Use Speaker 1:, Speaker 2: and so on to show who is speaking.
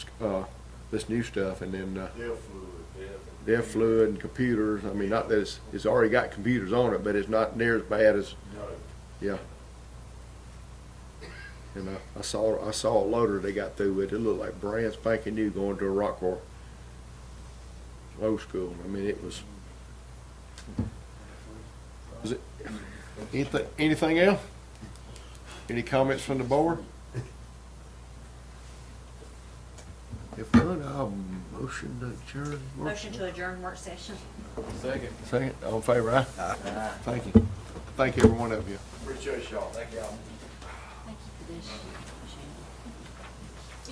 Speaker 1: uh, this new stuff, and then, uh,
Speaker 2: Deal fluid.
Speaker 1: their fluid and computers, I mean, not that it's, it's already got computers on it, but it's not near as bad as,
Speaker 2: No,
Speaker 1: yeah. And I, I saw, I saw a loader they got through with, it looked like brand spanking new going to a rock car. Old school, I mean, it was. Is it, anything, anything else? Any comments from the board? If not, I'll motion to adjourn.
Speaker 3: Motion to adjourn work session.
Speaker 1: Second, all in favor, aye? Thank you. Thank every one of you.
Speaker 2: appreciate y'all. Thank y'all.
Speaker 3: Thank you for this.